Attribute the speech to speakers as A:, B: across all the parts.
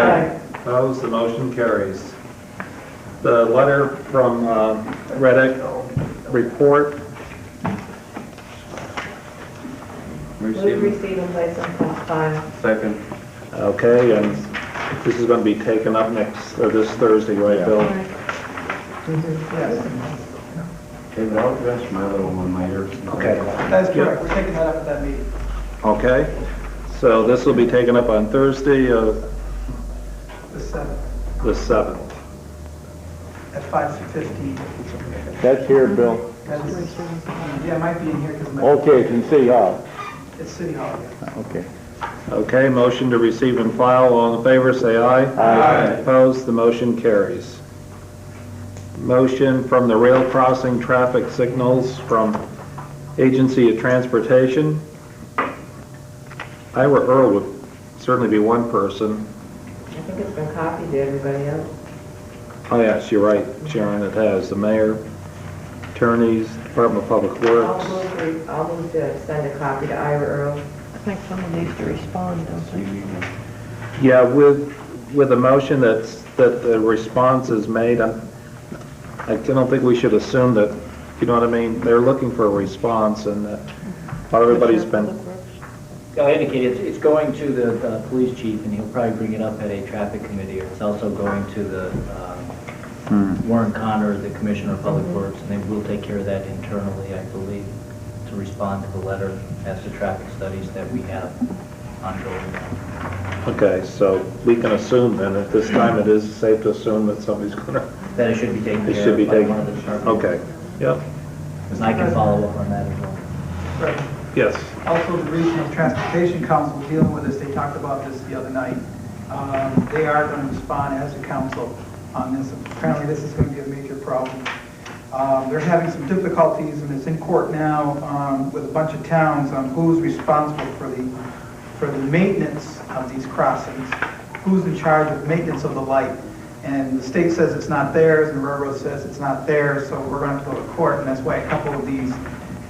A: Opposed, the motion carries. The letter from um, Reddick, report.
B: Move receive and place on file.
C: Second.
A: Okay, and this is going to be taken up next, or this Thursday, right, Bill?
C: David, I'll address my little one later.
A: Okay.
D: That's correct, we're taking that up at that meeting.
A: Okay, so this will be taken up on Thursday, uh,
D: The seventh,
A: the 7th.
D: at five fifteen.
E: That's here, Bill.
D: Yeah, it might be in here because
E: Okay, it's in City Hall.
D: it's City Hall. yeah.
E: Okay.
A: Okay, motion to receive and file, all in favor, say aye.
E: Aye.
A: Opposed, the motion carries. Motion from the rail crossing traffic signals from Agency of Transportation. Ira Earl would certainly be one person.
B: I think it's been copied to everybody else.
A: Oh, yes, you're right, Sharon, it has, the mayor, attorneys, Department of Public
B: I'll
A: Works.
B: move, re- I'll move to send a copy to Ira Earl.
F: I think someone needs to respond, don't they?
A: Yeah, with, with a motion that's, that the response is made, I I don't think we should assume that, you know what I mean? They're looking for a response and that everybody's been,
G: I indicated, it's- it's going to the uh, police chief, and he'll probably bring it up at a traffic committee, or it's also going to the um,
A: Hmm.
G: Warren Connor, the Commissioner of
D: Mm-hmm.
G: Public Works, and they will take care of that internally, I believe, to respond to the letter as to traffic studies that we have ongoing.
A: okay, so we can assume then, at this time, it is safe to assume that somebody's gonna,
G: That it should be taken
A: it
G: care
A: should be
G: of by
A: taken.
G: one of the departments.
A: Okay, yep,
G: And I can follow up on that as well.
D: Right.
A: yes.
D: Also, the Regional Transportation Council dealing with this, they talked about this the other night. Um, They are going to respond as a council on this. Apparently, this is going to be a major problem. Um, They're having some difficulties, and it's in court now um, with a bunch of towns on who's responsible for the, for the maintenance of these crossings, who's in charge of maintenance of the light. And the state says it's not theirs, and the railroad says it's not theirs, so we're going to go to court, and that's why a couple of these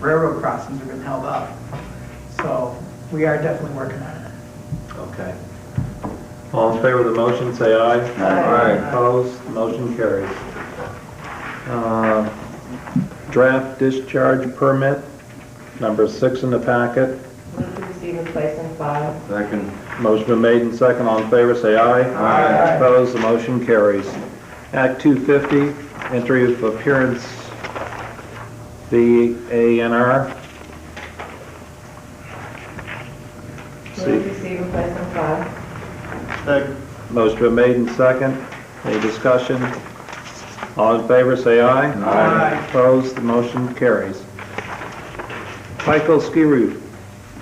D: railroad crossings have been held up. So we are definitely working on it.
A: Okay. All in favor of the motion, say aye.
D: Aye.
A: Opposed, motion carries. Uh, Draft discharge permit, number six in the packet.
B: Move to receive and place on file.
C: Second.
A: Motion been made and second, all in favor, say aye.
D: Aye.
A: Opposed, the motion carries. Act 250, entry of appearance, the ANR.
B: Move to receive and place on file.
A: Motion been made and second. Any discussion? All in favor, say aye.
D: Aye.
A: Opposed, the motion carries. Michael Ski Re-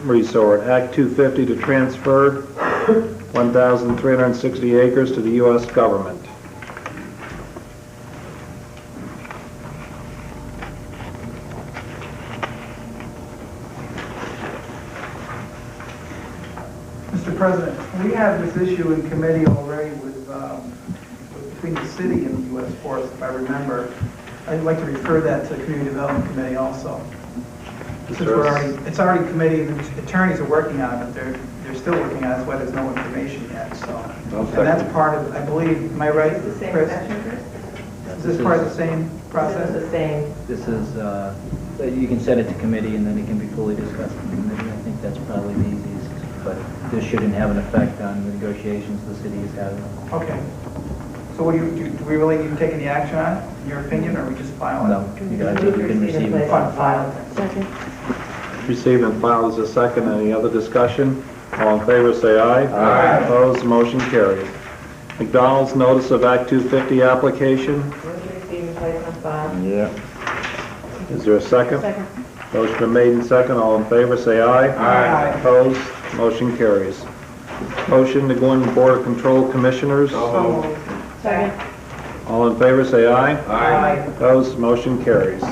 A: Resort, Act 250 to transfer 1,360 acres to the U.S. government.
D: Mr. President, we have this issue in committee already with, um, with- between the city and the U.S. Forest, if I remember. I'd like to refer that to the Community Development Committee also. Since we're already, it's already committee, and the attorneys are working on it, but they're, they're still working on it, that's why there's no information yet, so.
C: I'll
D: And that's part of, I believe, am I right?
B: Is this the same
D: Chris?
B: section, Chris?
D: Is this part of the same process?
B: This is the same.
G: This is, uh, you can send it to committee and then it can be fully discussed in committee. I think that's probably the easiest, but this shouldn't have an effect on the negotiations the city is having.
D: Okay. So what do you, do do we really need to take any action on it, in your opinion, or we just file it?
G: No, you guys, you
B: Move
G: can
B: to
G: receive
B: and place
G: it.
B: on file.
F: Second.
A: Receive and file as a second. Any other discussion? All in favor, say aye. Aye. Opposed, motion carries. McDonald's notice of Act 250 application.
B: Move to receive and place on file.
E: Yeah.
A: Is there a second?
F: Second.
A: Motion been made and second. All in favor, say aye.
D: Aye.
A: Opposed, motion carries. Motion to go in Board of Control Commissioners.
D: So moved.
B: Second.
A: All in favor, say aye.
D: Aye.
A: Opposed, motion carries.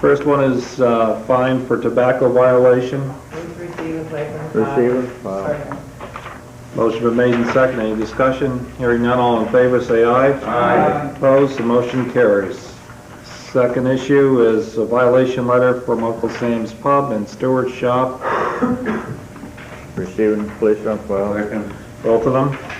A: First one is uh, fine for tobacco violation.
B: Move to receive and place on file.
E: Receiver, file.
D: Second.
A: Motion been made and second. Any discussion? Hearing none, all in favor, say aye.
D: Aye.
A: Opposed, the motion carries. Second issue is a violation letter from Uncle Sam's Pub and Stewart's Shop,
E: Receiving, place on file.
C: Second.
A: both of them.